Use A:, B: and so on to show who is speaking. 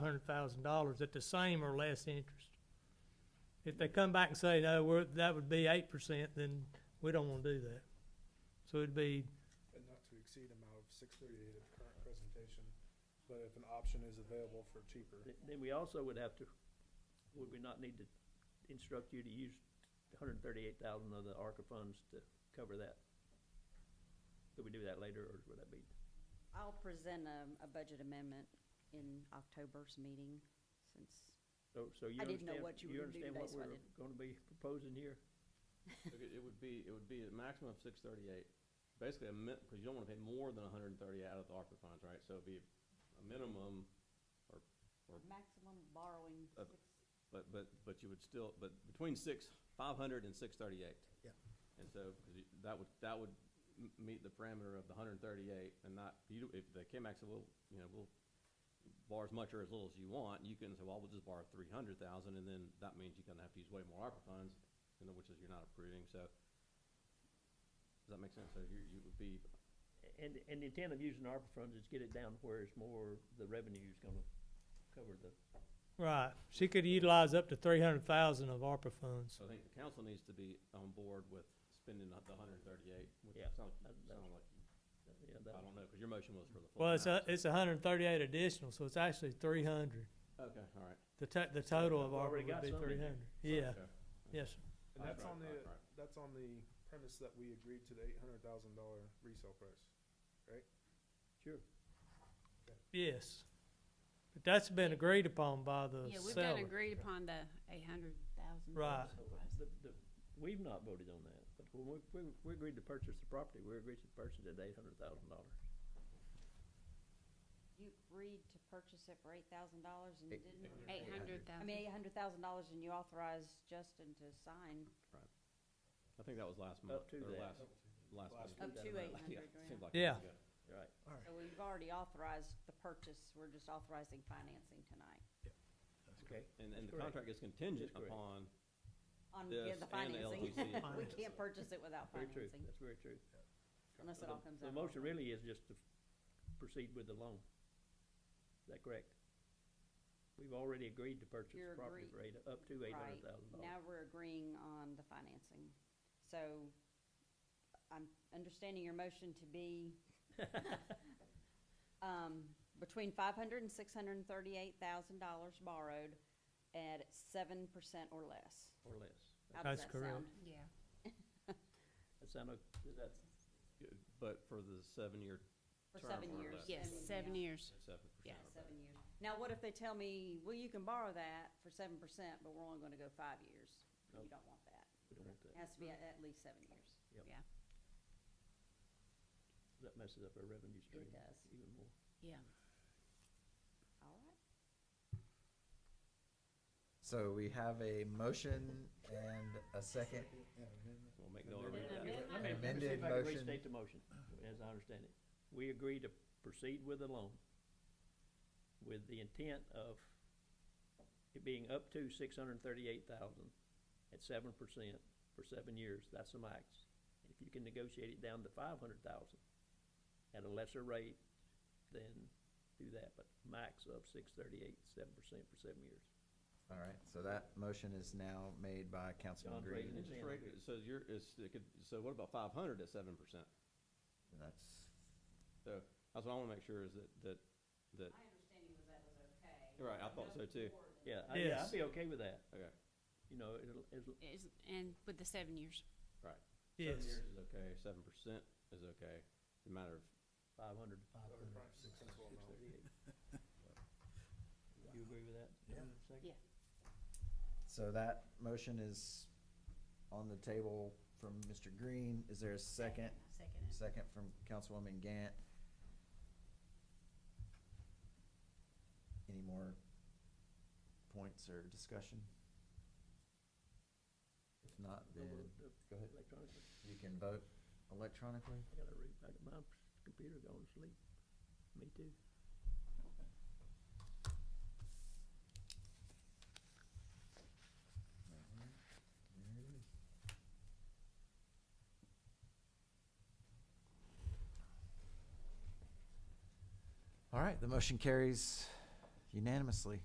A: hundred thousand dollars at the same or less interest. If they come back and say, no, we're, that would be eight percent, then we don't wanna do that. So it'd be,
B: and not to exceed amount of six thirty-eight of the current presentation, but if an option is available for cheaper.
C: Th- Then we also would have to, would we not need to instruct you to use hundred and thirty-eight thousand of the ARCA funds to cover that? Could we do that later, or would that be,
D: I'll present a, a budget amendment in October's meeting, since,
C: so, so you
D: I didn't know
C: understand,
D: what you were
C: you
D: gonna do
C: understand what
D: today, so I
C: we're
D: didn't.
C: gonna be proposing here?
E: Okay, It would be, it would be a maximum of six thirty-eight, basically a min, because you don't want to pay more than hundred and thirty out of the ARPA funds, right? So it'd be a minimum,
D: maximum borrowing
E: Uh,
D: six,
E: but, but, but you would still, but between six, five hundred and six thirty-eight.
F: Yeah.
E: And so, 'cause you- that would, that would m- meet the parameter of the hundred and thirty-eight and not, you, if the KMAX said, well, you know, we'll borrow as much or as little as you want, you can say, well, we'll just borrow three hundred thousand, and then that means you're gonna have to use way more ARPA funds, you know, which is you're not approving, so. Does that make sense? So you, you would be
C: And, and the intent of using ARPA funds is get it down where it's more, the revenue's gonna cover the,
A: right, she could utilize up to three hundred thousand of ARPA funds.
E: So I think the council needs to be on board with spending the hundred and thirty-eight, which
C: Yeah,
E: sounds,
C: that- that's-
E: sound like,
C: yeah,
E: I
C: that,
E: don't know, because your motion was for the full
A: Well, it's, uh, a-
E: amount,
A: it's hundred and thirty-eight additional, so it's actually three hundred.
E: so- Okay, all right.
A: The to, the total of
C: We've
A: ARPA
C: already
A: would
C: got
A: be
C: some in
A: three
C: there.
A: hundred. Yeah,
E: Okay.
A: yes, sir.
B: And that's
E: Right,
B: on
E: right,
B: the,
E: right.
B: that's on the premise that we agreed to the eight hundred thousand dollar resale price.
C: sure.
A: yes. But that's been agreed upon by the
G: Yeah, we've
A: seller.
G: done agreed upon the eight hundred thousand.
A: Right.
C: The, the, we've not voted on that, but when we, we, we agreed to purchase the property, we agreed to purchase it at eight hundred thousand dollars.
D: you agreed to purchase it for eight thousand dollars and you
F: Eight-
D: didn't,
G: Eight hundred
D: I
G: thousand.
D: mean, eight hundred thousand dollars and you authorized Justin to sign
E: I think that was last month,
C: to
E: or
C: that.
E: last,
B: Oh.
E: last
B: Last
D: up
E: month.
C: that
D: to
C: amount.
D: eight
E: Yeah,
D: hundred grand.
E: seems like years
A: Yeah.
E: ago.
C: Right.
D: So we've already authorized the purchase, we're just authorizing financing tonight
C: Okay.
E: And, and the
C: Correct.
E: contract is contingent
C: That's correct.
E: upon,
D: on,
E: This
D: yeah, the
E: and the
D: financing.
E: LTC.
D: We can't purchase it without
C: Very true,
D: financing
C: that's very true.
D: unless it
C: The-
D: all comes out.
C: The
D: of
C: motion
D: ARPA.
C: really is just to proceed with the loan. Is that correct? We've already agreed to purchase
D: You're
C: the property for eight, up to eight
D: Right.
C: hundred thousand dollars.
D: Now we're agreeing on the financing. So I'm understanding your motion to be um, between five hundred and six hundred and thirty-eight thousand dollars borrowed at seven percent or less.
C: Or less.
D: How does
A: That's
D: that sound?
G: Yeah.
C: That sound, o- is that,
E: yeah, but for the seven-year,
D: For
E: Term
D: seven
E: or
D: years.
E: less.
G: Yes,
D: and-
G: seven
D: yeah,
G: years.
E: seven
G: Yeah.
E: percent.
D: Seven years. Now, what if they tell me, well, you can borrow that for seven percent, but we're only gonna go five years? You
C: Nope.
D: don't want that.
C: we don't want
D: It
C: that,
D: has to be at at least seven years.
C: that messes up our revenue stream
D: does.
C: even more.
G: Yeah.
D: All right.
F: So we have a motion and a second.
E: We'll make no
B: And then
C: Let
E: argument with that.
C: me- let me see
F: Amended
C: if I can
F: motion.
C: Restate the motion, as I understand it. We agree to proceed with the loan with the intent of it being up to six hundred and thirty-eight thousand at seven percent for seven years, that's the max. If you can negotiate it down to five hundred thousand at a lesser rate, then do that, but max of six thirty-eight, seven percent for seven years.
F: All right, so that motion is now made by Councilman
C: John
F: Green.
C: Braden.
F: and
E: Interest rate, so you're, it's, it could, so what about five hundred at seven percent?
F: That's,
E: So, that's what I want to make sure is that, that, that,
D: My understanding was that was okay.
E: right, I thought so too.
C: Yeah, I- yeah,
A: Yes.
C: I'd be okay with that,
E: Okay,
C: you know, it'll, it'll,
G: Is, and with the seven years.
A: Yes,
E: Seven years is okay, seven percent is okay, it's a matter of
C: five hundred,
B: Other prime principal
C: six
B: amount.
C: thirty-eight. You agree with that?
F: Yeah.
C: Second?
F: so that motion is on the table from Mr. Green. Is there a second?
G: Second.
F: Second from Councilwoman Gant. Any more points or discussion? If not,
C: No,
F: then
C: uh,
F: go ahead.
C: Electronically,
F: you can vote electronically.
C: I gotta read, I got my computer going to sleep, me too.
F: All right, the motion carries unanimously.